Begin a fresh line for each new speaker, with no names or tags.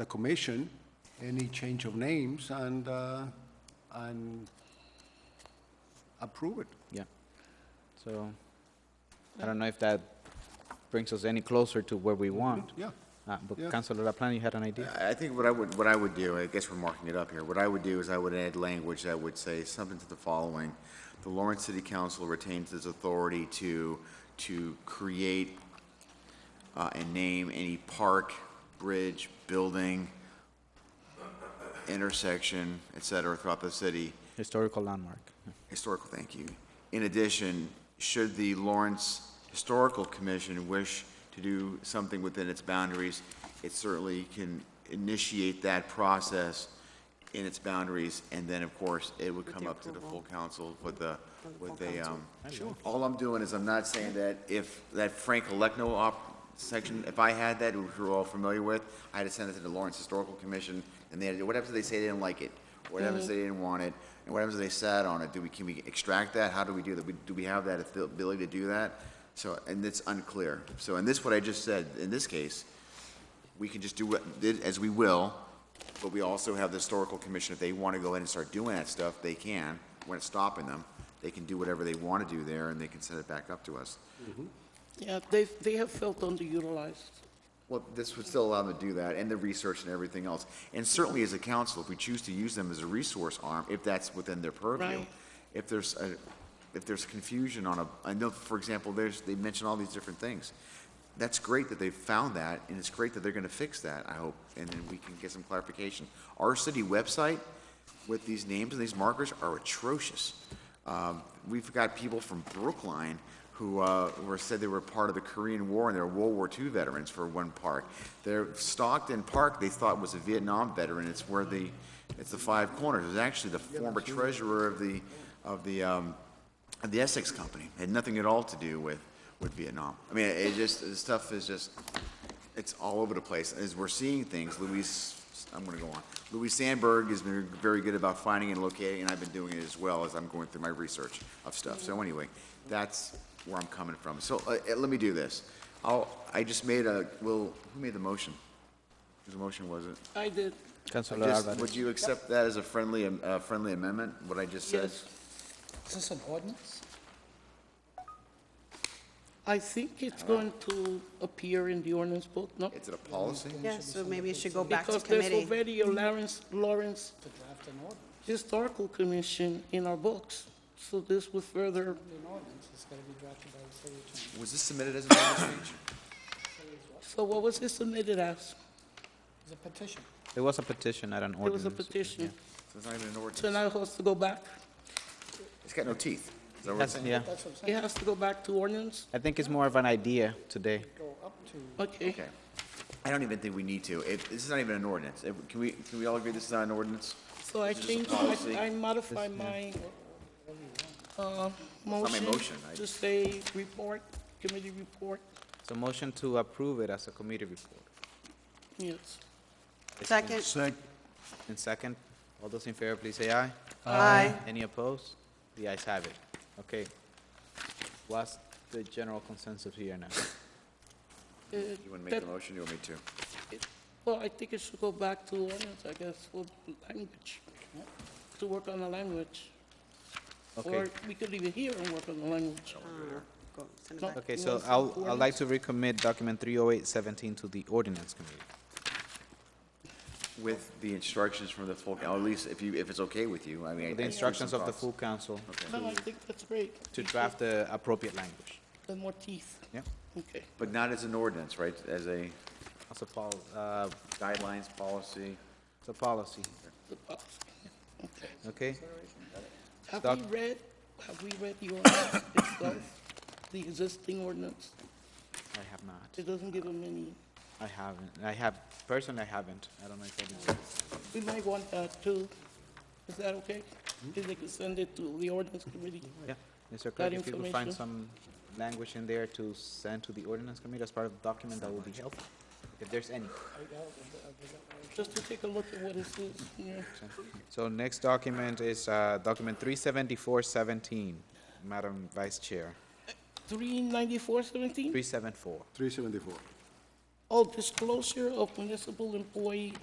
the commission, any change of names, and, uh, and approve it.
Yeah. So, I don't know if that brings us any closer to where we want.
Yeah.
Uh,
Yeah.
But Councilor LaPlante, you had an idea?
I I think what I would, what I would do, I guess we're marking it up here, what I would do is I would add language that would say something to the following. The Lawrence City Council retains its authority to, to create uh, and name any park, bridge, building, intersection, et cetera, throughout the city
Historical landmark.
historical, thank you. In addition, should the Lawrence Historical Commission wish to do something within its boundaries, it certainly can initiate that process in its boundaries, and then, of course, it would come up to the full council with a, with a, um, all I'm doing is I'm not saying that if, that Frank Elecno op, section, if I had that, which we're all familiar with, I had to send it to the Lawrence Historical Commission, and they had to, what happens if they say they didn't like it? What happens if they didn't want it? And what happens if they sat on it? Do we, can we extract that? How do we do that? We- Do we have that ability to do that? So, and it's unclear. So, and this, what I just said, in this case, we can just do what, did as we will, but we also have the historical commission, if they want to go ahead and start doing that stuff, they can. We're not stopping them. They can do whatever they want to do there, and they can send it back up to us.
Yeah, they, they have felt underutilized.
Well, this would still allow them to do that, and the research and everything else. And certainly as a council, if we choose to use them as a resource arm, if that's within their purview.
Right.
If there's, a- if there's confusion on a, I know, for example, there's, they mention all these different things. That's great that they've found that, and it's great that they're gonna fix that, I hope, and then we can get some clarification. Our city website with these names and these markers are atrocious. Um, We've got people from Brookline who uh, were said they were part of the Korean War and they were World War II veterans for one park. Their Stockton Park they thought was a Vietnam veteran. It's where the it's the Five Corners. It was actually the former treasurer of the of the um, of the Essex Company. It had nothing at all to do with with Vietnam. I mean, it just the stuff is just it's all over the place. As we're seeing things, Louise, I'm going to go on. Louise Sandberg has been very good about finding and locating, and I've been doing it as well as I'm going through my research of stuff. So anyway, that's where I'm coming from. So uh, uh, let me do this. I'll, I just made a, well, who made the motion? Whose motion was it?
I did,
Councilor
Just-
Alvarez.
Would you accept that as a friendly, am- uh, friendly amendment, what I just said?
yes.
Is this an ordinance?
I think it's going to appear in the ordinance book, no?
It's a policy?
Yeah, so maybe it should go back to
Because there's
committee.
already a Lawrence, Lawrence
To draft an ordinance,
Historical Commission in our books, so this would further,
an ordinance, it's gotta be drafted by the city attorney.
Was this submitted as an ordinance change?
so what was it submitted as?
It's a petition.
It was a petition, not an
It
ordinance.
was a petition,
So It's not even an
so
ordinance.
now it has to go back?
It's got no teeth. Is that what
That's-
it's saying?
Yeah,
That's what I'm
It
saying.
has to go back to ordinance?
I think it's more of an idea today.
Go up to,
Okay,
Okay. I don't even think we need to. If, this is not even an ordinance. If- can we, can we all agree this is not an ordinance?
so I
This is a
change,
policy.
I I modify my, uh,
not my
motion
motion, I-
to say report, committee report,
So motion to approve it as a committee report.
yes.
Second.
Sec,
And second, all those in favor, please say aye.
Aye.
Any opposed? The ayes have it. Okay. What's the general consensus here now?
Uh,
You want to make
that-
the motion? You want me to?
Well, I think it should go back to ordinance, I guess, for language, to work on the language. Or
Okay.
we could leave it here and work on the language.
Uh, go- send it
No.
back.
Okay,
You
so
want some
I'll, I'd like to recommit document 30817 to the ordinance committee.
With the instructions from the full, or at least if you, if it's okay with you, I mean. I-
The
I-
instructions
some
of the
thoughts.
full council
No, I think that's great.
to draft the appropriate language.
The more teeth,
Yeah,
okay.
But not as an ordinance, right? As a
as a pol, uh,
guidelines, policy.
it's a policy,
the policy. Okay.
okay?
Have
Doc-
we read, have we read the ordinance itself, the existing ordinance?
I have not,
It doesn't give them any,
I haven't, I have, personally, I haven't, I don't know if I did.
we might want that too. Is that okay? If they could send it to the ordinance committee?
Yeah, Mr. Clerk,
That
if you could find
information.
some language in there to send to the ordinance committee as part of the document, that would be helpful, if there's any.
Just to take a look at what it says, yeah.
So next document is, uh, document three seventy-four seventeen, Madam Vice Chair,
39417?
three seven four.
three seventy-four.
Oh, disclosure of municipal employee